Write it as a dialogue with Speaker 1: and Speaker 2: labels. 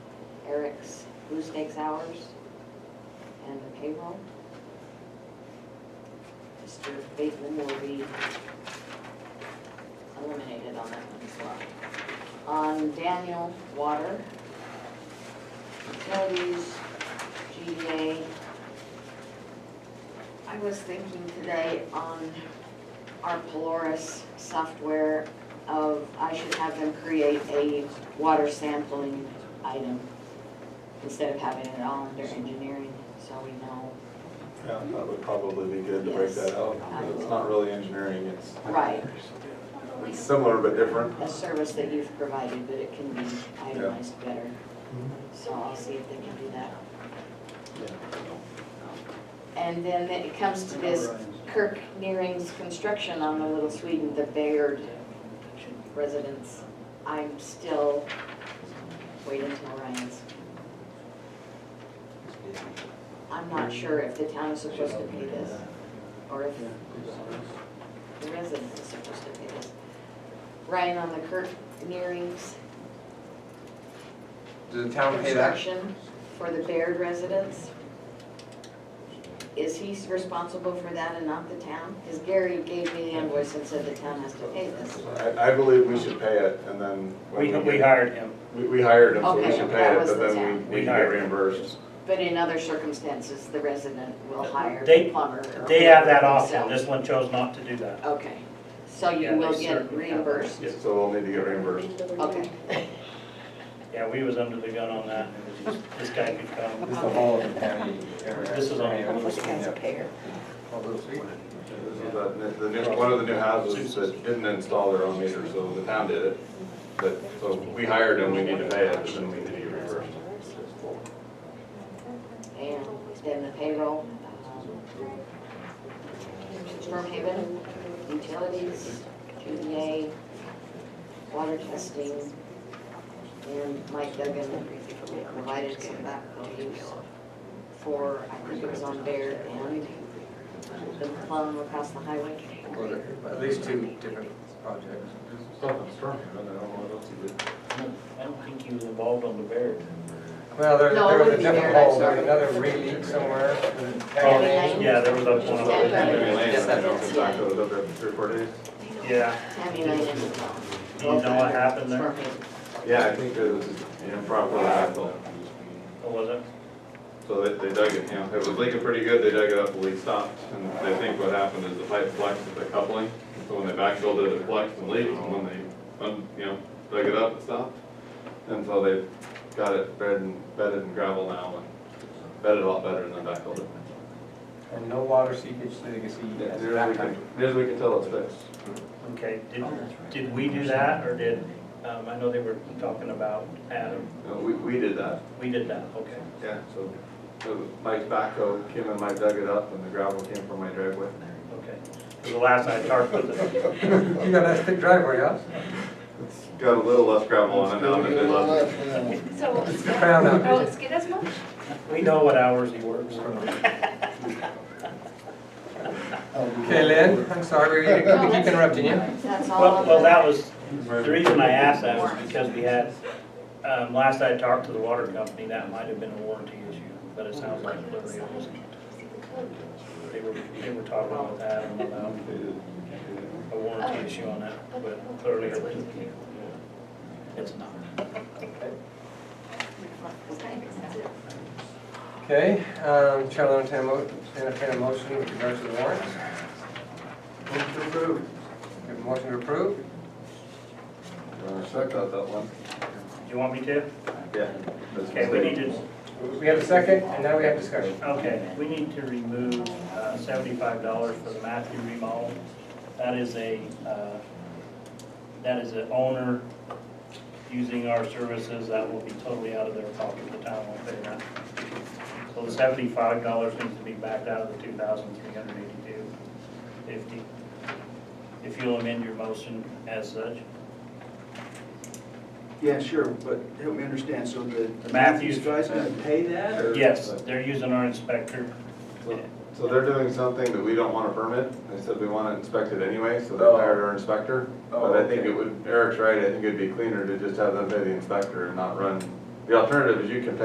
Speaker 1: takes, who takes hours, and the payroll. Mr. Bateman will be eliminated on that one as well. On Daniel Water, utilities, GDA. I was thinking today on our Polaris software of, I should have them create a water sampling item instead of having it all under engineering, so we know.
Speaker 2: Yeah, that would probably be good to break that out. because It's not really engineering, it's,
Speaker 1: Right,
Speaker 2: it's similar but different.
Speaker 1: a service that you've provided, but it can be itemized better. So I'll see if they can do that. And then it comes to this Kirk Nearing's construction on the Little Sweden, the Bayard residence. I'm still waiting till Ryan's. I'm not sure if the town is supposed to pay this, or if the resident is supposed to pay this. Ryan, on the Kirk Nearing's
Speaker 3: Does the town pay that?
Speaker 1: construction for the Baird residents, is he responsible for that and not the town? Because Gary gave me the invoice and said the town has to pay this.
Speaker 2: I, I believe we should pay it and then. when
Speaker 4: We, we
Speaker 2: get-
Speaker 4: hired him.
Speaker 2: We, we hired him, so we
Speaker 1: Okay,
Speaker 2: should
Speaker 1: that
Speaker 2: pay it,
Speaker 1: was
Speaker 2: but
Speaker 1: the
Speaker 2: then
Speaker 1: town.
Speaker 2: we, we
Speaker 4: We
Speaker 2: get
Speaker 4: hired
Speaker 2: reimbursed.
Speaker 1: But in other circumstances, the resident will hire
Speaker 4: They-
Speaker 1: the plumber. or
Speaker 4: They have that
Speaker 1: themselves.
Speaker 4: option, this one chose not to do that.
Speaker 1: Okay, so
Speaker 4: Yeah,
Speaker 1: you
Speaker 4: they
Speaker 1: will get
Speaker 4: certainly have that.
Speaker 1: reimbursed?
Speaker 4: Yes.
Speaker 2: So we'll need to get reimbursed.
Speaker 1: Okay,
Speaker 4: Yeah, we was under the gun on that, It was just, this guy could come.
Speaker 5: This is the whole of the county area.
Speaker 4: This is all-
Speaker 5: Little Sweden,
Speaker 6: guy's a payer.
Speaker 5: yeah. All those people.
Speaker 2: This is the- The new, one of the new houses that didn't install their own meter, so the town did it. But, so we hired him, we need to pay it, but then we need to get reimbursed.
Speaker 1: and then the payroll, um, Storm Haven, utilities, GDA, water testing, and Mike Duggan provided some back to use for, I think it was on Bear and the plum across the highway.
Speaker 5: Well, there- At least two different projects.
Speaker 4: I don't think he was involved on the bear.
Speaker 5: Well, there,
Speaker 1: No, it
Speaker 5: there was
Speaker 1: wouldn't
Speaker 5: a
Speaker 1: be there, I'm
Speaker 5: different hole, there was
Speaker 1: sorry.
Speaker 5: another re-leak somewhere. and-
Speaker 1: Yeah.
Speaker 4: Yeah, there was a one of
Speaker 2: Maybe Lane, I don't know if
Speaker 4: those.
Speaker 2: it's back to the other three, or four days.
Speaker 4: Yeah,
Speaker 1: Tammy Lane and the plum.
Speaker 4: Do you know what happened there?
Speaker 1: Storm Haven.
Speaker 2: Yeah, I think it was an improper backflow.
Speaker 4: Or Oh, was it?
Speaker 2: So they, they dug it, you know, it was leaking pretty good, they dug it up, the leak stopped, and they think what happened is the pipe flexed with the coupling. So when they backfilled it, it flexed and leaked, and when they, un- you know, dug it up, it stopped. And so they got it bed and, bedded in gravel now, and bedded a lot better than they backfilled it.
Speaker 5: And no water seepage legacy.
Speaker 2: Near as we can, near as we can tell, it's fixed.
Speaker 4: Okay, did, did we do that, or did, um, I know they were talking about Adam,
Speaker 2: No, we, we did that.
Speaker 4: we did that, okay.
Speaker 2: Yeah. So, so Mike's backhoe came and Mike dug it up, and the gravel came from my driveway.
Speaker 4: Okay, 'Cause the last I talked with them,
Speaker 5: You got a thick driveway, huh?
Speaker 2: It's got a little less gravel on it now than it did last year.
Speaker 7: So,
Speaker 5: It's the crown out
Speaker 7: oh,
Speaker 5: there.
Speaker 7: it's good as much?
Speaker 4: we know what hours he works.
Speaker 1: Oh.
Speaker 5: Okay, Lynn, I'm sorry, we we keep interrupting you.
Speaker 1: That's all.
Speaker 4: Well,
Speaker 1: on
Speaker 4: well,
Speaker 1: the-
Speaker 4: that was, the reason I asked that was because we had, um, last I talked to the water company, that might have been a warranty issue, but it sounds like literally it wasn't. They were, they were talking about that, and about a warranty issue on that, but clearly it was. It's not.
Speaker 5: Okay, um, Chair will entertain a mo- entertain a motion with regards to the warrants.
Speaker 2: Motion to approve.
Speaker 5: We have a motion to approve.
Speaker 2: Check out that one.
Speaker 4: Do you want me to?
Speaker 2: Yeah.
Speaker 4: Okay, we need to,
Speaker 5: We have a second, and now we have discussion.
Speaker 4: okay, we need to remove uh, seventy-five dollars for the Matthew remodel. That is a, uh, that is an owner using our services, that will be totally out of their pocket, the town won't pay that. So the seventy-five dollars needs to be backed out of the two thousand three hundred eighty-two fifty. If you'll amend your motion as such.
Speaker 8: Yeah, sure, but help me understand, so the
Speaker 4: The Matthews-
Speaker 8: Matthews guy's gonna pay that, or?
Speaker 4: Yes, they're using our inspector.
Speaker 2: So they're doing something that we don't want to permit, they said we want it inspected anyway, so they hired our inspector. But I think it would, Eric's right, I think it'd be cleaner to just have them pay the inspector and not run. The alternative is you can pay